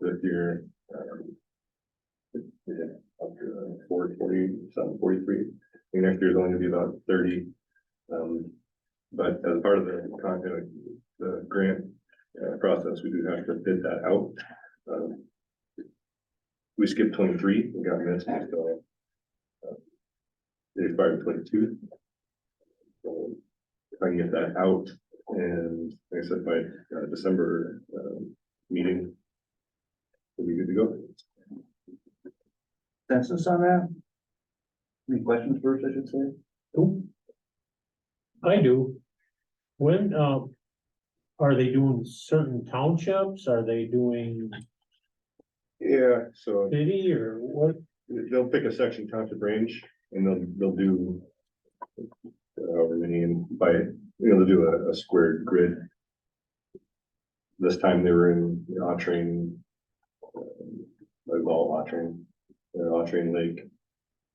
this year. um, Yeah, up to uh, four forty, something forty-three, and next year's only gonna be about thirty. Um, but as part of the content, the grant uh, process, we do have to bid that out. Um, We skipped twenty-three, we got missed, so. uh, It expired twenty-two. So If I can get that out and like I said, by uh, December um, meeting. We'll be good to go. Census on that? Any questions first, I should say? I do. When, um, are they doing certain townships? Are they doing Yeah, so city or what? they'll pick a section township range and they'll, they'll do. However many and by, you know, they'll do a, a squared grid. This time they were in Autrain. um, Like all Autrain, or Autrain Lake.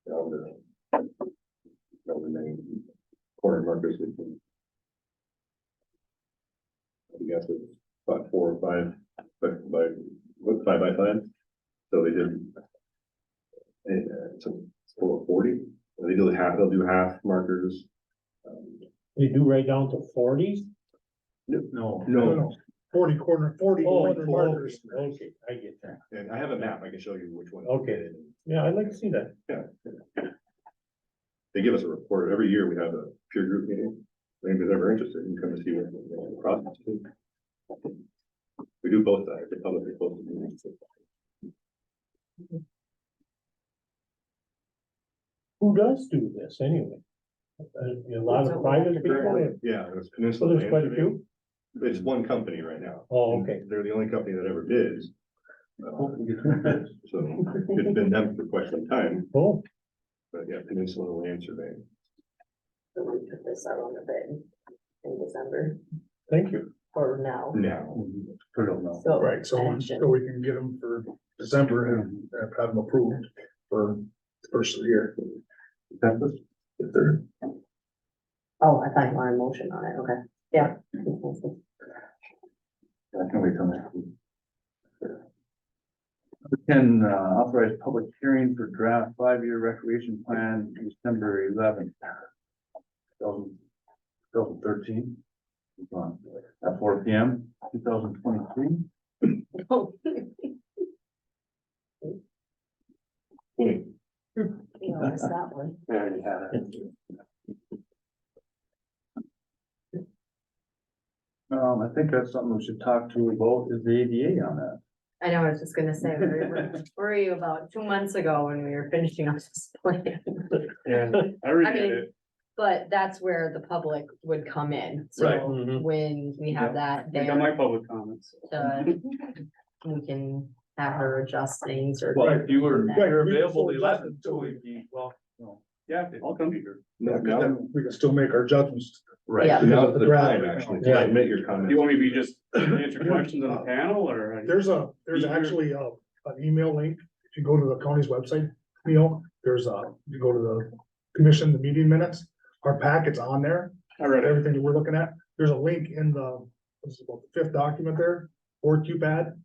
Down the. Down the main corner markers. we can- I guess it's about four or five, but by, what, five by five? So they did and uh, it's a it's full of forty, and they do half, they'll do half markers. Um, They do right down to forties? No. No, Forty corner, forty Oh, corner okay, markers. okay, I get that. and I have a map, I can show you which one. Okay. Yeah, I'd like to see that. They give us a report, every year we have a peer group meeting, if anybody's ever interested, you can come and see what what the process is. We do both sides, the public and both. Who does do this anyway? Uh, A lot of private people? Yeah, it's So Peninsula. there's quite a Land few? Surveying. It's one company right now. Oh, okay. They're the only company that ever bids. Uh, So it's been them for quite some time, Oh, but yeah, Peninsula Land Surveying. So we put this out on the bid in December thank you. or now. Now. I don't know. So Right, so, so we can get them for December and have them approved for the first of the year. That was the third. Oh, I thought you wanted a motion on it, okay, yeah. I can wait till next week. Can uh, authorize public hearing for draft five-year recreation plan December eleventh. Thousand thirteen. At four P M, two thousand twenty-three. Oh, Wait, You know, it's that one. I already had it. Um, I think that's something we should talk to about is the ADA on that. I know, I was just gonna say, where were- where were you about two months ago when we were finishing up this plan? And I I mean, But that's where the public would come in, Right. so Mhm. when we have that there, public comments. to we can have her adjust things or. Well, if you were, Right, you're we can available the still adjust eleventh, it till so we- we'd be, well, No. yeah, I'll come to your. No, Yeah, 'cause now, then we can still make our judgments. right, Yeah. now's the Right. time actually Yeah. to admit your comments. You want me to be just answer questions on the panel or? how do you- There's a, there's Easier. actually a, an email link. If you go to the county's website, you know, there's a, you go to the commission, the meeting minutes, our packet's on there. I read it. Everything that we're looking at, there's a link in the, this is about the fifth document there, or QPAD.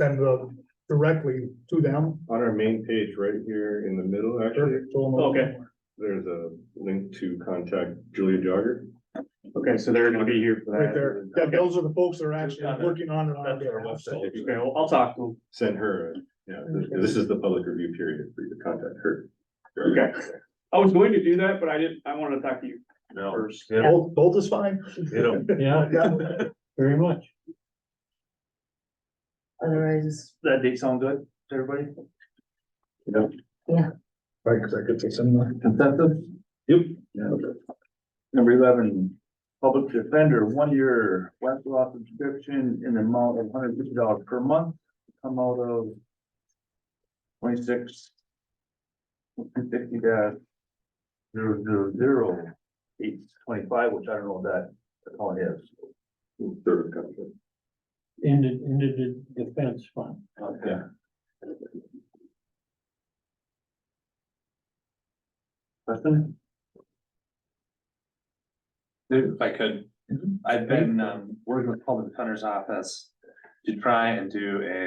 Send the, directly to them. On our main page right here in the middle, actually, Okay. there's a link to contact Julia Jogger. Okay, so they're gonna be here for that. Right there. Yeah, Okay, those are the folks that are actually working on it on our That's our website. Okay, well, I'll talk to Send her, a- yeah, this- this is the public review period for you to contact her. them. Okay. I was going to do that, but I didn't, I wanted to talk to you No. first. Both, both is fine. Yeah, Yeah. very much. Otherwise, That date sound good to everybody? Right, cause I could say something. Consensus? Yep. Number eleven, public defender, one-year Westlaw subscription in the amount of hundred fifty dollars per month, come out of twenty-six fifty dash zero zero zero eight twenty-five, which I don't know what that account is. Service contract. Into, into the defense fund. Okay. Question? If I could, Mhm. I've been um working with Paul Hunter's office to try and do a